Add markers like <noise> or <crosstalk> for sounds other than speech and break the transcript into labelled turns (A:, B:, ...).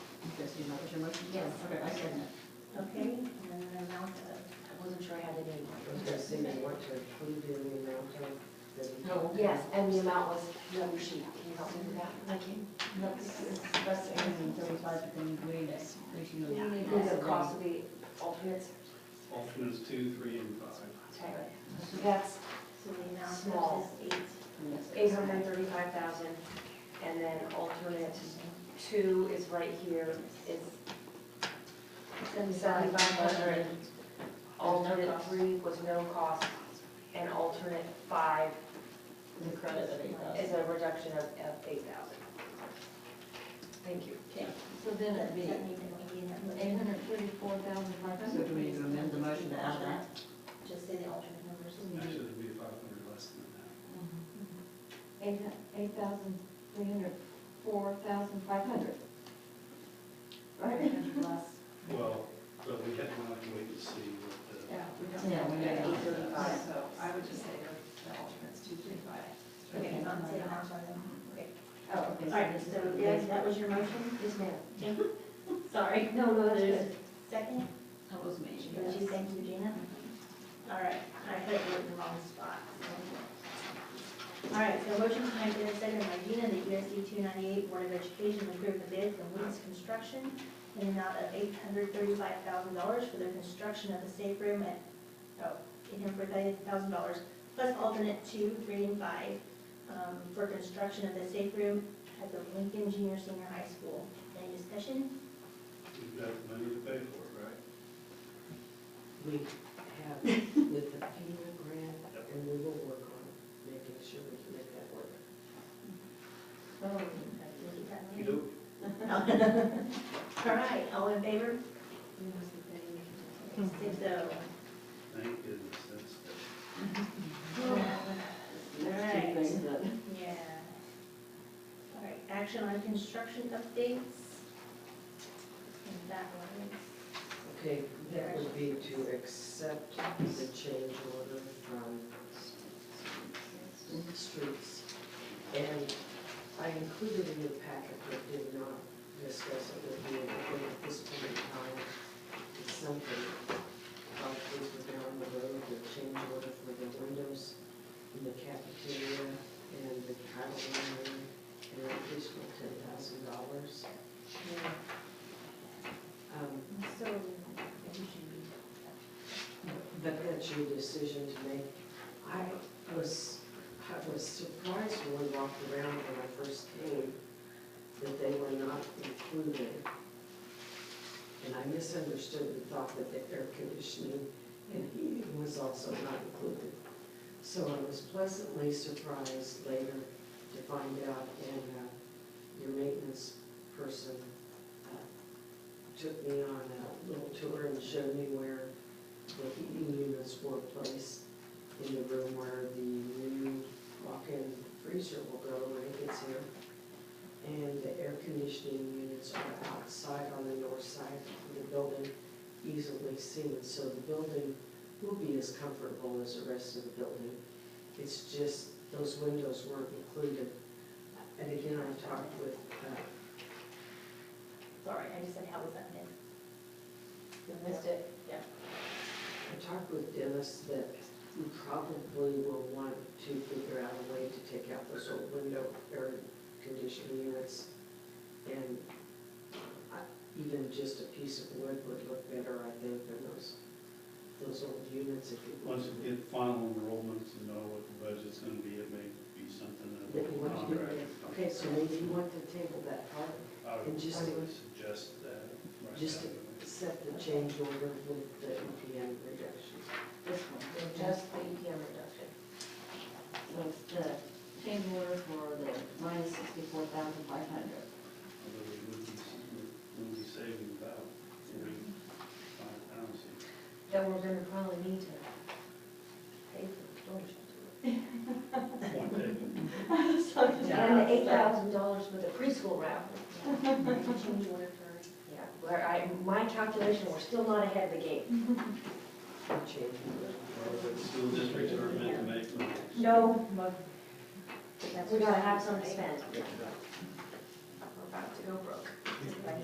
A: Christie, is that what your motion is?
B: Yes.
A: Okay, I second it.
B: Okay, and then the amount of, I wasn't sure I had it in.
C: I was gonna say, you want to include in the amount of the.
A: No.
B: Yes, and the amount was the other sheet. Can you help me with that? Thank you.
A: Let's discuss it in thirty-five, but then we, that's, we should.
B: Is the cost of the alternates?
D: Options two, three, and five.
B: Okay, so that's
E: So the
B: Small.
E: amount is eight.
B: eight hundred and thirty-five thousand, and then alternate two is right here, it's seventy-five hundred. Alternate three was no cost, and alternate five
A: The credit of eight thousand.
B: is a reduction of, of eight thousand. Thank you.
E: So then it'd be. Eight hundred thirty-four thousand five
A: So
E: hundred.
A: do we need to amend the motion to add that?
E: Just say the alternate numbers.
D: Actually, it'd be five hundred less than that.
E: Eight, eight thousand, three hundred, four thousand five hundred. Right?
D: Well, but we had to wait and see what the.
F: Yeah, we
A: Yeah, we
F: don't have
A: don't.
F: eight thirty-five,
A: Yeah.
F: so I would just say the alternates two, three, five.
E: Okay,
F: Okay.
E: not say the amount on them. Okay.
A: Oh, okay.
E: All right, so yes, that was your motion?
B: Yes, ma'am.
E: Sorry. No, no, that's good. Second?
A: That was me.
E: Would you thank you, Gina? All right, I put you in the wrong spot. All right, so motion to make a second by Gina, that USD E two ninety-eight Board of Education approve the bid from Wheaton's Construction in an amount of eight hundred thirty-five thousand dollars for the construction of the safe room at, oh, eight hundred thirty-five thousand dollars, plus alternate two, three, and five, um, for construction of the safe room at the Lincoln Junior Senior High School. Any discussion?
D: We've got the money to pay for it, right?
C: We have with the FEMA grant, and we will work on making sure we can make that work.
E: Oh, okay, is that
C: Mm-hmm.
D: You
E: me?
D: do,
E: All right, all in favor?
B: Hmm.
E: Six oh.
D: thank goodness, that's,
E: Alright.
A: Let's do things that-
E: Yeah. All right, action on construction updates. And that one is,
C: Okay, that would be to accept the change order from Streets. And I included in your packet, but did not discuss it with you, but at this point in time, it's something, uh, things were down the road, the change order for the windows in the cafeteria and the dining room, and an additional ten thousand dollars. Um,
E: so, maybe should
C: but that's your decision to make. I was, I was surprised when we walked around when I first came that they were not included. And I misunderstood and thought that the air conditioning and heating was also not included. So I was pleasantly surprised later to find out, and uh, your maintenance person uh, took me on a little tour and showed me where the E heating units were placed in the room where the new walk-in freezer will go when it gets here. And the air conditioning units are outside on the north side of the building, easily seen. So the building will be as comfortable as the rest of the building. It's just those windows weren't included. And again, I talked with, uh,
E: sorry, I just said how was that meant? You missed <laughs> it, yeah.
C: I talked with Dennis that we probably will want to figure out a way to take out those old window air conditioning units. And I- even just a piece of wood would look better, I think, than those, those old units if you.
D: once you get final enrollments and know what the budget's gonna be, it may be something that.
C: That you want to do.
D: Contract.
C: Okay, so maybe you want to table that part,
D: I would
C: And just to-
D: suggest that. right
C: Just to-
D: now.
C: set the change order with the E EPM reduction.
A: This one,
B: Just the EPM reduction.
A: so it's the change order for the minus sixty-four thousand five hundred.
D: Although we would be, we would be saving about forty-five pounds.
C: <laughs>
B: That we're gonna probably need to pay for the storage.
D: One day.
B: And the eight thousand dollars for the preschool raffle.
E: Change order for,
B: <laughs> Yeah, where I, my calculation, we're still not ahead of the game.
C: Change order.
D: School districts are meant to make money.
B: No,
E: that's.
B: we gotta have some to spend.
C: Yeah.
B: We're about to go broke.